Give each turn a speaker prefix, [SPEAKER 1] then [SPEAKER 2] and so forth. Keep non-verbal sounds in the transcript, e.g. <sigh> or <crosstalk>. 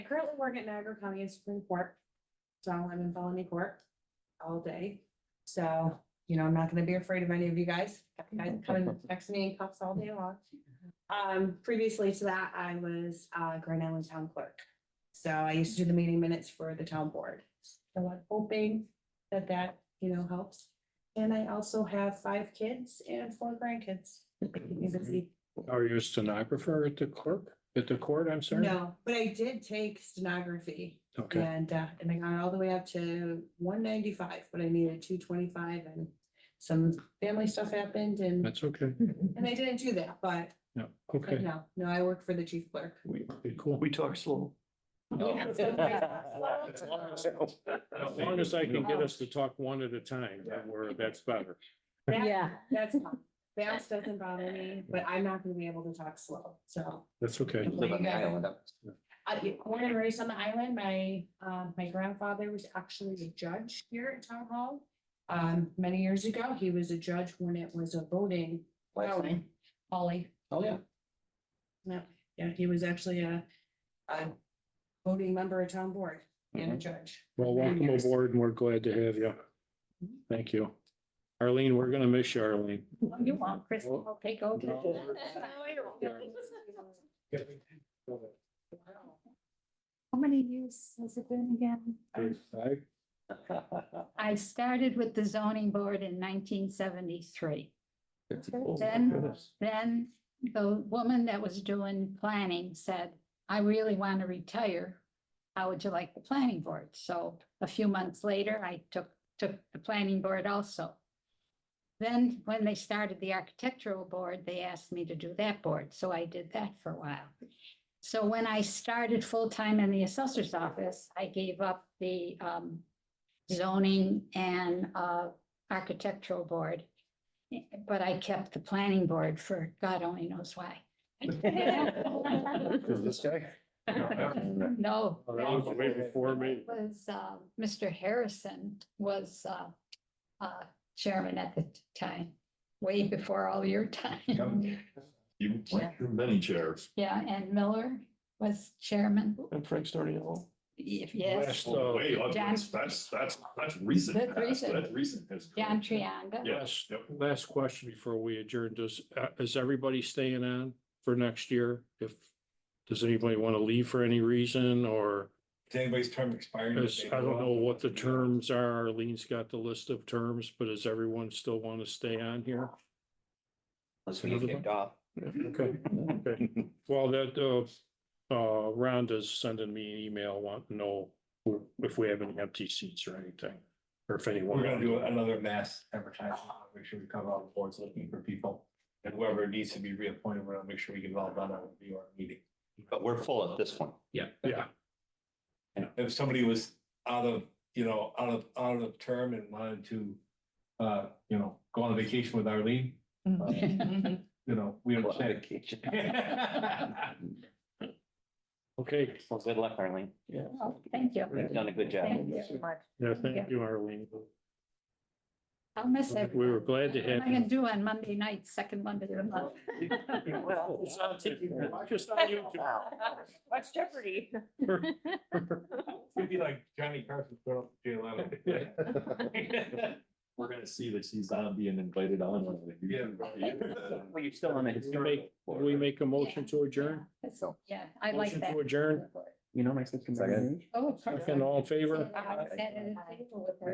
[SPEAKER 1] currently work at Niagara County Supreme Court. So I'm in felony court all day. So, you know, I'm not gonna be afraid of any of you guys. You guys come and text me and cuffs all day long. Um, previously to that, I was, uh, Grand Island Town Clerk. So I used to do the meeting minutes for the town board. So I'm hoping that that, you know, helps. And I also have five kids and four grandkids. Keep me busy.
[SPEAKER 2] Are you a stenographer at the clerk, at the court, I'm sorry?
[SPEAKER 1] No, but I did take stenography
[SPEAKER 2] Okay,
[SPEAKER 1] and, uh, and I got all the way up to one ninety-five, but I needed two twenty-five and some family stuff happened and,
[SPEAKER 2] that's okay.
[SPEAKER 1] and I didn't do that, but,
[SPEAKER 2] Yeah,
[SPEAKER 1] but
[SPEAKER 2] okay.
[SPEAKER 1] no, no, I work for the chief clerk.
[SPEAKER 2] We, cool.
[SPEAKER 3] We talk slow.
[SPEAKER 2] As long as I can get us to talk one at a time, that we're, that's better.
[SPEAKER 1] That-
[SPEAKER 4] Yeah.
[SPEAKER 1] That's, fine. bounce doesn't bother me, but I'm not gonna be able to talk slow, so.
[SPEAKER 2] That's okay.
[SPEAKER 3] Live on the island.
[SPEAKER 1] I, born and raised on the island, my, um, my grandfather was actually a judge here at Town Hall. Um, many years ago, he was a judge when it was a voting
[SPEAKER 3] Last name?
[SPEAKER 1] Holly.
[SPEAKER 3] Oh, yeah.
[SPEAKER 1] Yeah, he was actually a, a voting member of town board and a
[SPEAKER 3] Mhm.
[SPEAKER 1] judge.
[SPEAKER 2] Well, welcome aboard and we're glad to have you. Thank you. Arlene, we're gonna miss you, Arlene.
[SPEAKER 4] You want, Chris, I'll take over.
[SPEAKER 2] No.
[SPEAKER 1] <laughs>
[SPEAKER 4] How many years has it been again? I started with the zoning board in nineteen seventy-three.
[SPEAKER 3] Fifty-four.
[SPEAKER 4] Then- Then the woman that was doing planning said, I really want to retire. How would you like the planning board? So a few months later, I took, took the planning board also. Then when they started the architectural board, they asked me to do that board, so I did that for a while. So when I started full-time in the assessor's office, I gave up the um zoning and uh architectural board. But I kept the planning board for God only knows why.
[SPEAKER 3] This guy?
[SPEAKER 4] <laughs> No.
[SPEAKER 2] Around
[SPEAKER 4] that-
[SPEAKER 2] Oh, way before me.
[SPEAKER 4] that Was, uh, Mr. Harrison was, uh, uh, chairman at the time, way before all your time.
[SPEAKER 5] <laughs> You went through many chairs.
[SPEAKER 4] <laughs> Yeah, and Miller was chairman,
[SPEAKER 3] And Frank started it all.
[SPEAKER 4] if- yes,
[SPEAKER 2] Last- So-
[SPEAKER 5] Oh, Way up.
[SPEAKER 4] John-
[SPEAKER 5] That's, that's, that's that's recent.
[SPEAKER 4] That's
[SPEAKER 5] past.
[SPEAKER 4] recent.
[SPEAKER 5] That's recent history.
[SPEAKER 4] John Trianda.
[SPEAKER 5] Yes, yep.
[SPEAKER 2] Last question before we adjourn, does, uh, is everybody staying on for next year? If, does anybody want to leave for any reason or?
[SPEAKER 6] Is anybody's term expiring?
[SPEAKER 2] Is, I don't know what the terms are. Arlene's got the list of terms, but does everyone still want to stay on here?
[SPEAKER 3] Unless we get kicked off.
[SPEAKER 2] Okay, okay. Well, that, uh, uh, Rhonda's sending me an email, want to know if we have any empty seats or anything, or if anyone.
[SPEAKER 6] We're gonna do another mass advertising, make sure we cover all the boards looking for people. And whoever needs to be reappointed, we're gonna make sure we get it all done at the VR meeting.
[SPEAKER 3] But we're full at this one.
[SPEAKER 2] Yeah,
[SPEAKER 6] And if somebody was out of, you know, out of, out of term and wanted to, uh, you know, go on vacation with Arlene, uh, you know, we
[SPEAKER 3] Well,
[SPEAKER 6] understand.
[SPEAKER 3] <laughs>
[SPEAKER 2] okay.
[SPEAKER 3] good luck, Arlene. Yeah.
[SPEAKER 4] Oh, Thank you.
[SPEAKER 3] You've done a good
[SPEAKER 4] Thank
[SPEAKER 3] job.
[SPEAKER 4] you.
[SPEAKER 2] Yeah, thank you, Arlene.
[SPEAKER 4] I'll miss it.
[SPEAKER 2] We were glad to
[SPEAKER 4] What am
[SPEAKER 2] have
[SPEAKER 4] I gonna
[SPEAKER 2] you.
[SPEAKER 4] do on Monday night, second Monday of the month?
[SPEAKER 2] It's on TV. Just on YouTube.
[SPEAKER 7] Watch Jeopardy.
[SPEAKER 6] <laughs> We'd be like Johnny Carson, throw up Jay Leno.
[SPEAKER 5] We're gonna see that she's not being invited on. one of the
[SPEAKER 4] <laughs>
[SPEAKER 5] YouTube-
[SPEAKER 3] Well, you're still on the historical.
[SPEAKER 2] Will we make a motion to adjourn?
[SPEAKER 4] So, Yeah, I like
[SPEAKER 2] Motion
[SPEAKER 4] that.
[SPEAKER 2] To adjourn,
[SPEAKER 3] You know, my sister.
[SPEAKER 4] Oh, of course.
[SPEAKER 2] and all in favor?
[SPEAKER 4] I sat at a table with her.